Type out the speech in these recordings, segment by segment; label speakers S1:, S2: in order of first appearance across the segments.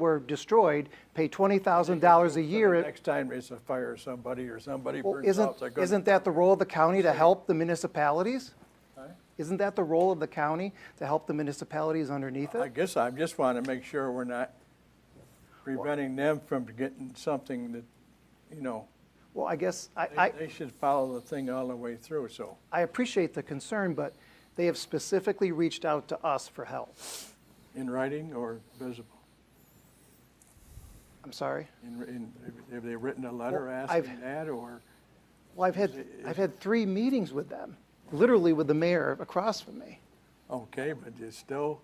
S1: were destroyed, pay $20,000 a year.
S2: The Next time there's a fire, somebody or somebody
S1: Well,
S2: burns
S1: Isn't,
S2: out, they're gonna.
S1: isn't that the role of the county to help the municipalities? Isn't that the role of the county to help the municipalities underneath
S2: I
S1: it?
S2: guess I just want to make sure we're not preventing them from getting something that, you know,
S1: Well, I guess, I,
S2: they-
S1: I,
S2: they should follow the thing all the way through, so.
S1: I appreciate the concern, but they have specifically reached out to us for help.
S2: In writing or visible?
S1: I'm sorry.
S2: In, in, have they written a letter
S1: Well, I've-
S2: asking that, or?
S1: Well, I've had, I've had three meetings with them, literally with the mayor across from me.
S2: Okay, but it's still,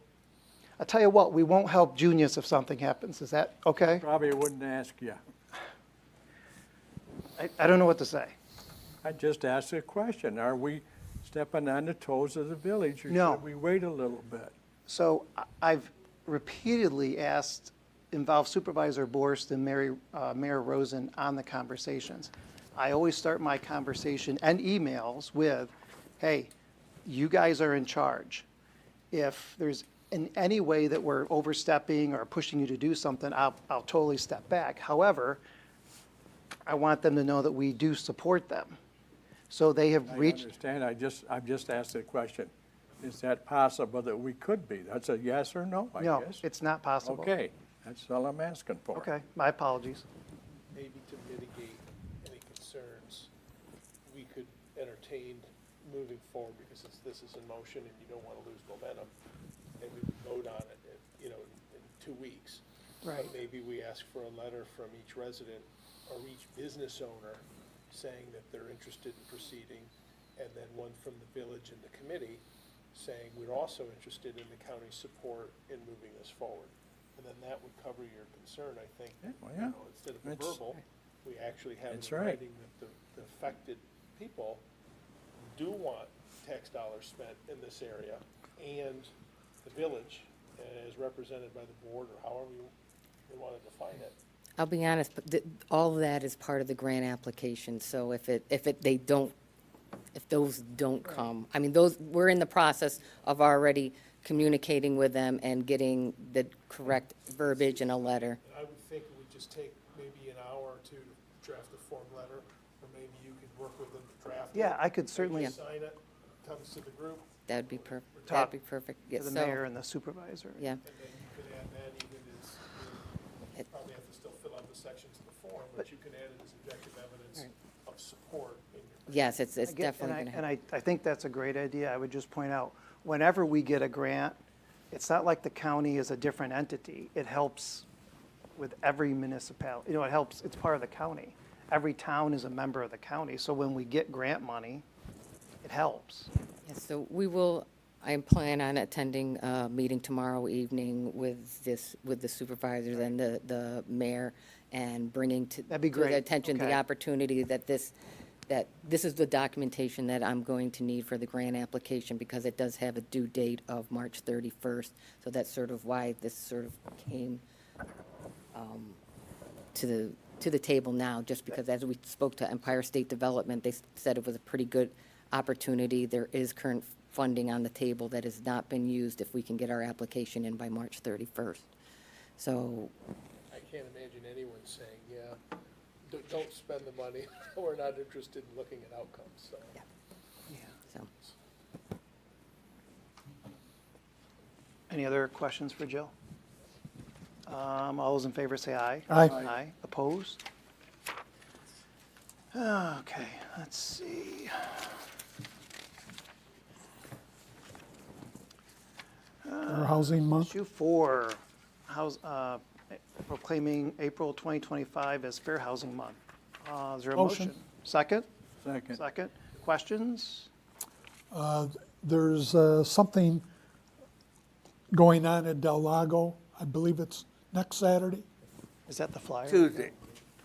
S1: I tell you what, we won't help Junius if something happens. Is that okay?
S2: probably wouldn't ask you.
S1: I, I don't know what to say.
S2: I just asked a question. Are we stepping on the toes of the village?
S1: No.
S2: Or should we wait a little bit?
S1: So I- I've repeatedly asked, involved Supervisor Borst and Mary, uh, Mayor Rosen on the conversations. I always start my conversation and emails with, hey, you guys are in charge. If there's in any way that we're overstepping or pushing you to do something, I'll, I'll totally step back. However, I want them to know that we do support them. So they have
S2: I
S1: reached,
S2: understand, I just, I've just asked a question. Is that possible that we could be? That's a yes or no, I guess?
S1: no, it's not possible.
S2: Okay, that's all I'm asking for.
S1: Okay, my apologies.
S3: maybe to mitigate any concerns, we could entertain moving forward, because it's, this is in motion and you don't wanna lose momentum, and we would vote on it, in, you know, in two weeks. But
S1: Right.
S3: Maybe we ask for a letter from each resident or each business owner saying that they're interested in proceeding, and then one from the village and the committee saying we're also interested in the county's support in moving this forward. And then that would cover your concern, I think.
S2: Yeah, well,
S3: you
S2: yeah.
S3: know, Instead of a
S2: That's-
S3: verbal, we actually have it
S2: That's
S3: in
S2: right.
S3: writing that the, the affected people do want tax dollars spent in this area and the village uh, as represented by the board or however you, you want to define it.
S4: I'll be honest, but th- all of that is part of the grant application, so if it, if it, they don't, if those don't come, I mean, those, we're in the process of already communicating with them and getting the correct verbiage in a letter.
S3: I would think it would just take maybe an hour or two to draft a form letter, or maybe you could work with them to draft it.
S1: Yeah, I could
S3: They
S1: certainly-
S3: just Sign it, comes to the group,
S4: That'd be per, that'd
S1: Top
S4: be perfect,
S1: to
S4: yes,
S1: the mayor
S4: so,
S1: and the supervisor.
S4: yeah.
S3: and then you could add that even as, you
S4: It-
S3: probably have to still fill out the sections of the form, but you could add it as objective evidence of support in your
S4: Yes, it's, it's
S1: I get- and
S4: definitely gonna
S1: I- And
S4: happen.
S1: I, I think that's a great idea. I would just point out, whenever we get a grant, it's not like the county is a different entity. It helps with every municipality, you know, it helps, it's part of the county. Every town is a member of the county, so when we get grant money, it helps.
S4: Yes, so we will, I plan on attending a meeting tomorrow evening with this, with the supervisors and the, the mayor and bringing to.
S1: That'd be
S4: to their
S1: great,
S4: attention the
S1: okay.
S4: opportunity that this, that this is the documentation that I'm going to need for the grant application because it does have a due date of March 31st. So that's sort of why this sort of came um, to the, to the table now, just because as we spoke to Empire State Development, they s- said it was a pretty good opportunity. There is current funding on the table that has not been used if we can get our application in by March 31st. So
S3: I can't imagine anyone saying, yeah, don't, don't spend the money, we're not interested in looking at outcomes, so.
S4: So,
S1: Any other questions for Jill? Um, all those in favor say aye.
S2: Aye. Aye.
S1: Aye, opposed? Okay, let's see.
S5: Fair Housing Month.
S1: Issue four, house, uh, proclaiming April 2025 as Fair Housing Month. Uh, Is there a
S5: Motion.
S1: motion? Second?
S2: Second.
S1: Second. Questions?
S5: There's uh, something going on at Del Lago. I believe it's next Saturday.
S1: Is that the flyer?
S2: Tuesday.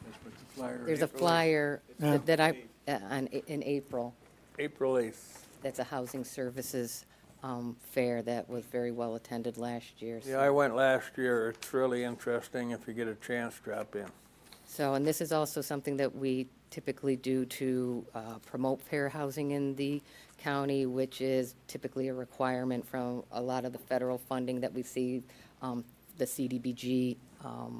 S2: That's what the flyer.
S4: There's a
S2: April-
S4: flyer
S5: Yeah.
S4: that that I, uh, on, in April,
S2: April 8th.
S4: that's a housing services um, fair that was very well attended last year.
S6: Yeah, I went last year. It's really interesting. If you get a chance, drop in.
S4: So, and this is also something that we typically do to uh, promote fair housing in the county, which is typically a requirement from a lot of the federal funding that we see, um, the CDBG um,